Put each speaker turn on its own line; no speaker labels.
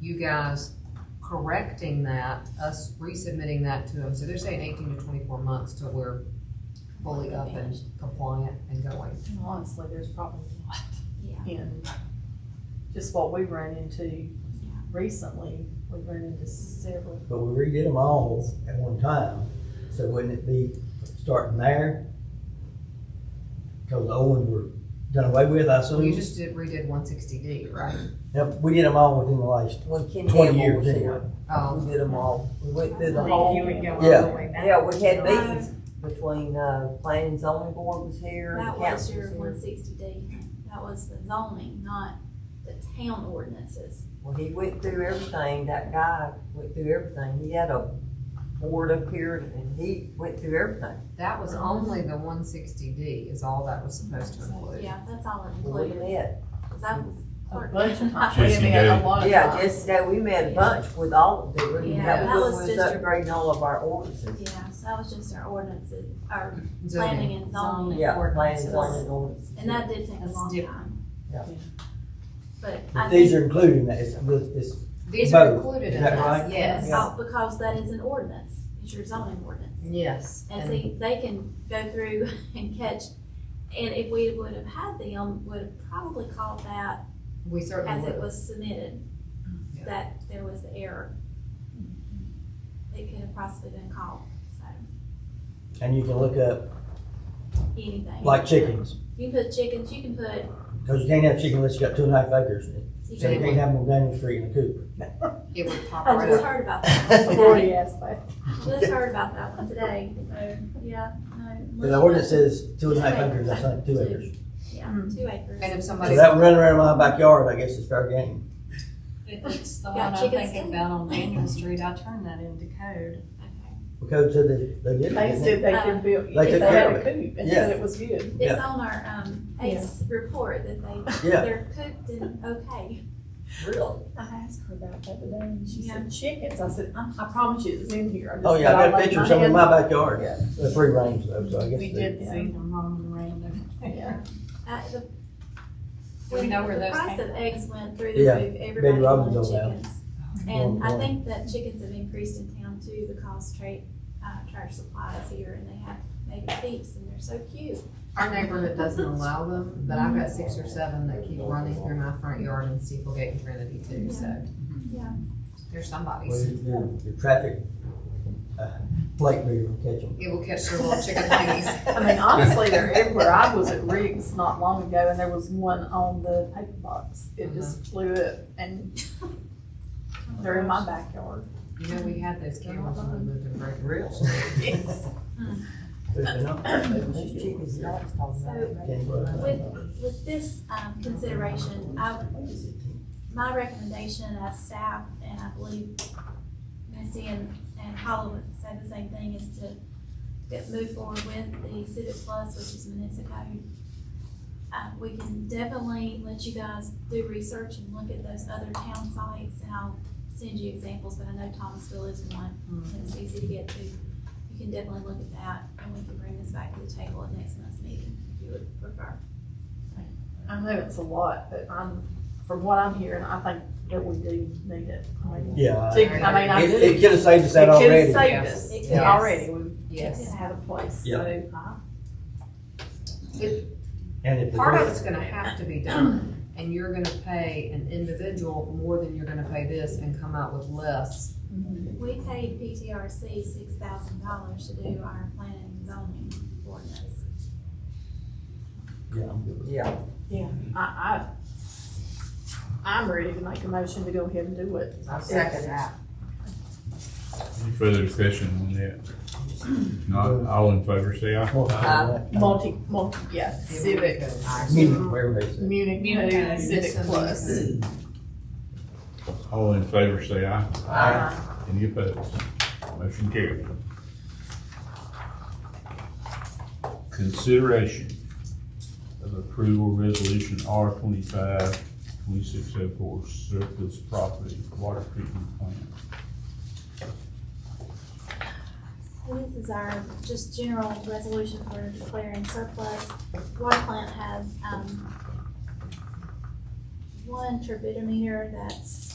you guys correcting that, us resubmitting that to them. So they're saying eighteen to twenty-four months till we're fully up and compliant and going.
And Honestly, there's probably a lot
Yeah.
in just what we ran into recently. We ran into several.
But we redid them all at one time, so wouldn't it be starting there? Cause the old ones were done away with, I
So you
assume.
just did, redid one sixty D, right?
Yep, we did them all within the last
When Ken
twenty
Campbell
years
was
anyway.
here,
Um,
we did them all, we went through the
You
whole.
would go
all the
way back.
Yeah, we had meetings between, uh, planning and zoning board was here. and
That was
council
your
here.
one sixty D, that was the zoning, not the town ordinances.
Well, he went through everything, that guy went through everything, he had a board up here and he went through everything.
that was only the one sixty D is all that was supposed to include.
Yeah, that's all it
Well, We
included,
met,
'cause that was.
A
part-
bunch of times.
Chasing
We had
Dave.
a lot of
yeah,
times.
just that we met a bunch with all of them,
Yeah,
that
that
was
was
when we was
just your-
upgrading all of our ordinances.
Yeah, so that was just our ordinances, our
Zoning.
planning and zoning.
Yeah, planning
ordinances.
and zoning ordinances.
And that did take a
That's
long
different.
time.
Yeah.
But I
But these
think,
are including that, it's, it's,
These are
Both.
included
Is
in
that
that,
right?
yes.
Yeah.
oh, because that is an ordinance, it's your zoning ordinance.
Yes.
And see, they can go through and catch, and if we would have had them, would have probably called that
We certainly
as
would.
it was submitted,
Yeah.
that there was the error. It could have possibly been called, so,
and you can look up,
anything.
like chickens,
You can put chickens, you can put,
cause you can't have chicken unless you got two and a half acres.
you
So you
can,
can't have them on Daniel Street in the coop.
It would pop
I
right
just
up.
heard about that one today,
Forty aspect.
just heard about that one today, so, yeah, no.
The ordinance says two and a half acres, I think, two acres.
Yeah, two acres.
And if
So
somebody,
that running around my backyard, I guess is fair game.
If it's the
Yeah,
one I'm
chicken
thinking
skin.
about on Daniel Street, I turned that into code.
Okay.
Because of the, they did.
They said they could build,
Like
if
they
they had a
could.
coop and
Yeah.
said it was good.
It's on our, um, ACE report that they,
Yeah.
they're cooked and okay.
Really?
I asked her about that today and she
Yeah.
said chickens. I said, I, I promise you it's in here. I just
Oh, yeah,
said,
I got a
laid
picture
my
of some in
hands
my
on it."
backyard.
Yeah.
The free range though, so I guess.
We
they-
did
See
see.
them roaming around everywhere.
Yeah.
Uh, the-
We know where those
The price
came
of
from.
eggs went through the
Yeah,
roof, everybody
Robin's
wanted
old house.
chickens. And
Well,
I
well.
think that chickens have increased in town too because trade, uh, trash supply is here and they have maybe peeps and they're so cute.
our neighborhood doesn't allow them, but I've got six or seven that keep running through my front yard and Steeplegate and Trinity too, so.
Mm-hmm.
Yeah.
They're
Well,
somebody's.
Your, your traffic, uh, plate reader will catch them.
It will catch their little chicken thingies.
I mean, honestly, they're everywhere. I was at Riggs not long ago and there was one on the paper box. It just
Mm-hmm.
flew up and they're in my backyard.
You know, we had those cameras when we lived in Great Ridge.
There's been no-
Those chickens, I was talking
So
about.
Can't grow them.
with, with this, um, consideration, I, my recommendation as staff, and I believe Missy and, and Paula would say the same thing, is to get, move forward with the Civic Plus, which is Municipal. Uh, we can definitely let you guys do research and look at those other town sites, and I'll send you examples, but I know Thomasville is one, and it's easy to get to. You can definitely look at that, and we can bring this back to the table at next month's meeting, if you would prefer.
I know it's a lot, but I'm, from what I'm hearing, I think that we do need it. I mean,
Yeah.
chick- I mean, I
Uh, It,
do.
it could have saved us that
It could've
already.
saved
yes.
us.
It
Yeah,
could.
Already, we
Yes.
had a place,
Yeah.
so.
And if. the-
Part of it's gonna have to be done, and you're gonna pay an individual more than you're gonna pay this and come out with less.
We paid PTRC six thousand dollars to do our planning and zoning ordinance.
Yeah, I'm good with it.
Yeah,
I, I, I'm ready to make a motion to go ahead and do it.
I
second
that.
Any further discussion on that? If Not all in favor, say aye.
Well,
Uh,
Multi, multi, yeah, civic,
Meeting, wherever they say.
Munich,
Munich
Code,
Code.
civic plus.
All in favor, say aye.
Uh,
Any opposed? Motion carried. Consideration of approval resolution R twenty-five, twenty-six oh four surplus property water treatment plant.
So This is our just general resolution for declaring surplus. Water plant has, um, one turbidimeter that's